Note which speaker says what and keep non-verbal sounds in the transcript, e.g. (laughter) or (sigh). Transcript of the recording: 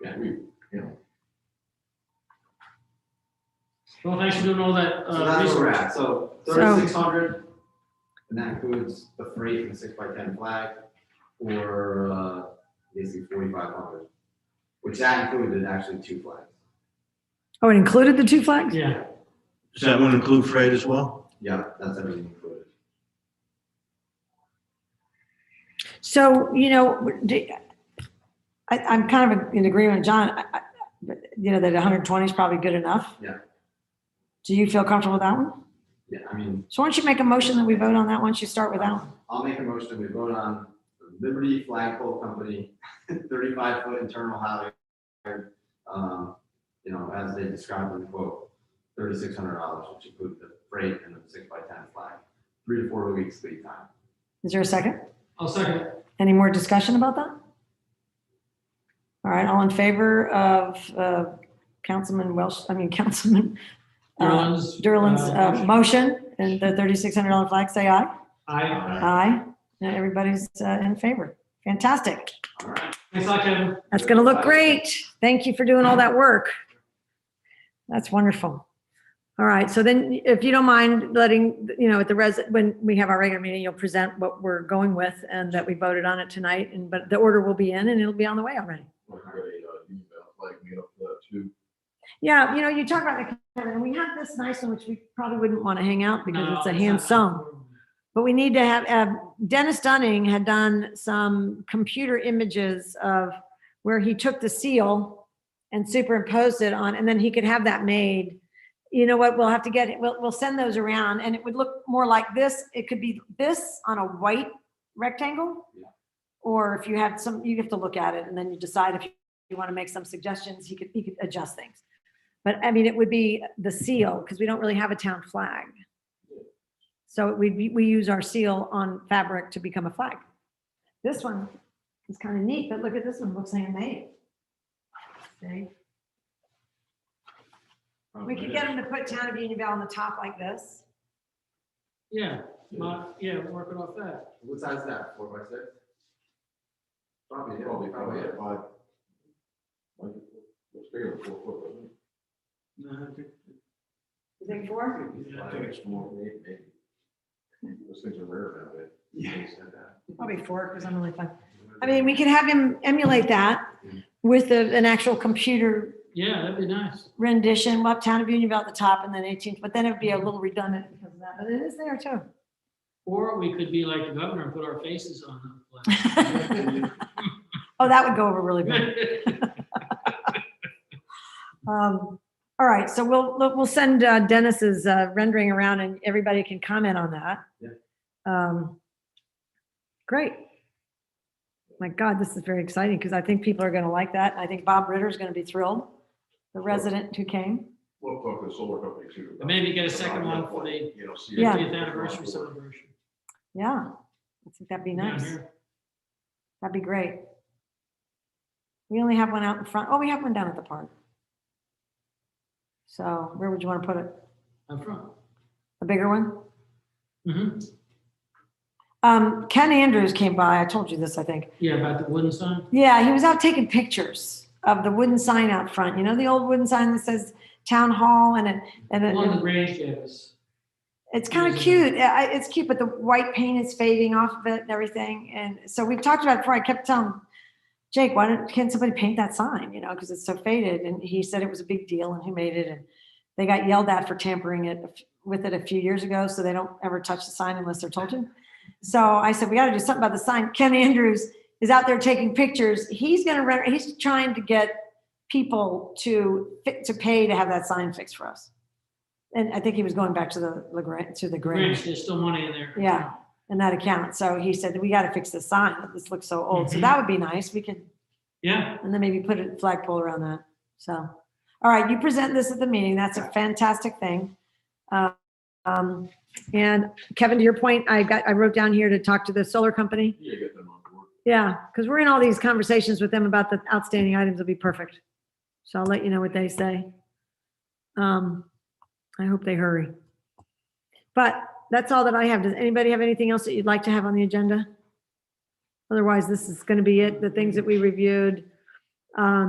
Speaker 1: that, we, you know.
Speaker 2: Well, thanks for doing all that,
Speaker 1: So
Speaker 2: uh,
Speaker 1: that's where we're
Speaker 2: research.
Speaker 1: at, so
Speaker 3: So-
Speaker 1: thirty-six hundred, and that includes the freight and the six by ten flag, or, uh, basically forty-five hundred. Which that included actually two flags,
Speaker 3: Oh, it included the two flags?
Speaker 2: Yeah,
Speaker 4: Does that one include freight as well?
Speaker 1: yeah, that's everything included.
Speaker 3: So, you know, do- I, I'm kind of in agreement, with John, I- I- but, you know, that 120 is probably good enough.
Speaker 1: Yeah.
Speaker 3: Do you feel comfortable with that one?
Speaker 1: Yeah, I mean,
Speaker 3: So why don't you make a motion that we vote on that once you start with that one?
Speaker 1: I'll make a motion, we vote on Liberty Flagpole Company, (laughs) thirty-five foot internal housing. um, You know, as they described in the quote, thirty-six hundred dollars, which includes the freight and the six by ten flag, three to four weeks lead time.
Speaker 3: Is there a second?
Speaker 2: I'll second it.
Speaker 3: Any more discussion about that? All right, all in favor of uh, Councilman Welsh, I mean, (laughs) Councilman uh,
Speaker 2: Derlin's.
Speaker 3: Derlin's
Speaker 2: uh,
Speaker 3: uh, motion and the $3,600 flag, say aye.
Speaker 2: Aye.
Speaker 3: Aye. And Everybody's uh, in favor. Fantastic.
Speaker 1: All right,
Speaker 2: Thanks a lot, Kevin.
Speaker 3: That's going to look great. Thank you for doing all that work. That's wonderful. All right, so then if you don't mind letting, you know, at the res, when we have our regular meeting, you'll present what we're going with and that we voted on it tonight. And, but the order will be in and it'll be on the way already.
Speaker 5: Like, we got a, uh, union belt, like, made up for that too.
Speaker 3: Yeah, you know, you talk about the, calendar, and we have this nice one, which we probably wouldn't want to hang out because
Speaker 2: No,
Speaker 3: it's a
Speaker 2: not-
Speaker 3: hand sewn. But we need to have, uh, Dennis Dunning had done some computer images of where he took the seal and superimposed it on, and then he could have that made. You know what, we'll have to get, it. we'll, we'll send those around, and it would look more like this. It could be this on a white rectangle.
Speaker 1: Yeah.
Speaker 3: Or if you have some, you have to look at it and then you decide if you want to make some suggestions, he could, he could adjust things. But I mean, it would be the seal, because we don't really have a town flag. So we, we use our seal on fabric to become a flag. This one is kind of neat, but look at this one, looks handmade. See? We could get them to put town of Unionville on the top like this.
Speaker 2: Yeah, my- yeah, working off that.
Speaker 1: What size is that, four by six? Probably, probably,
Speaker 5: Probably, probably,
Speaker 1: probably,
Speaker 5: yeah, five. Like, it's bigger than four foot, wasn't it?
Speaker 2: No, I think-
Speaker 3: You think four?
Speaker 5: I think it's more than eight, maybe. Those things are rare nowadays.
Speaker 1: yeah.
Speaker 3: Probably four, because I'm only five. I mean, we could have him emulate that with a- an actual computer
Speaker 2: Yeah, that'd be nice.
Speaker 3: rendition, well, town of Unionville at the top and then 18th, but then it'd be a little redundant because of that, but it is there too. (laughs)
Speaker 2: Or we could be like the governor and put our faces on
Speaker 3: (laughs)
Speaker 2: (laughs) the
Speaker 3: Oh, that would go over really good.
Speaker 2: flag.
Speaker 3: Um, all right, so we'll, we'll we'll send uh, Dennis's uh, rendering around and everybody can comment on that.
Speaker 1: Yeah.
Speaker 3: Um, great. My God, this is very exciting because I think people are going to like that. I think Bob Ritter is going to be thrilled, the resident who came.
Speaker 5: We'll talk to the solar company too.
Speaker 2: But maybe get a second one for the
Speaker 5: You know, see.
Speaker 3: Yeah.
Speaker 2: fiftieth anniversary celebration.
Speaker 3: Yeah, I think that'd be
Speaker 2: down
Speaker 3: nice.
Speaker 2: here.
Speaker 3: That'd be great. We only have one out in front. Oh, we have one down at the park. So where would you want to put it?
Speaker 2: Up front.
Speaker 3: A bigger one?
Speaker 2: hmm
Speaker 3: Um, Ken Andrews came by. I told you this, I think.
Speaker 2: Yeah, about the wooden sign.
Speaker 3: Yeah, he was out taking pictures of the wooden sign out front. You know, the old wooden sign that says town hall and it, and
Speaker 2: One of the
Speaker 3: it,
Speaker 2: graves, yes.
Speaker 3: it's kind of cute. Yeah, I- It's cute, but the white paint is fading off of it and everything. And so we've talked about it before. I kept telling Jake, why don't, can't somebody paint that sign? You know, because it's so faded. And he said it was a big deal and who made it. And they got yelled at for tampering it with it a few years ago. So they don't ever touch the sign unless they're told to. So I said, we got to do something about the sign. Ken Andrews is out there taking pictures. He's going to rent, he's trying to get people to fit, to pay to have that sign fixed for us. And I think he was going back to the, LaGrange- to the Grange
Speaker 2: Graves, there's still money in there.
Speaker 3: Yeah. in that account. So he said, we got to fix this sign. This looks so old. So that would be nice. We could
Speaker 2: Yeah,
Speaker 3: and then maybe put a flagpole around that. So, all right, you present this at the meeting. That's a fantastic thing. Uh, um, And Kevin, to your point, I got, I wrote down here to talk to the solar company.
Speaker 5: Yeah, get them on board.
Speaker 3: Yeah, because we're in all these conversations with them about the outstanding items will be perfect. So I'll let you know what they say. Um, I hope they hurry. But that's all that I have. Does anybody have anything else that you'd like to have on the agenda? Otherwise, this is going to be it, the things that we reviewed. Um,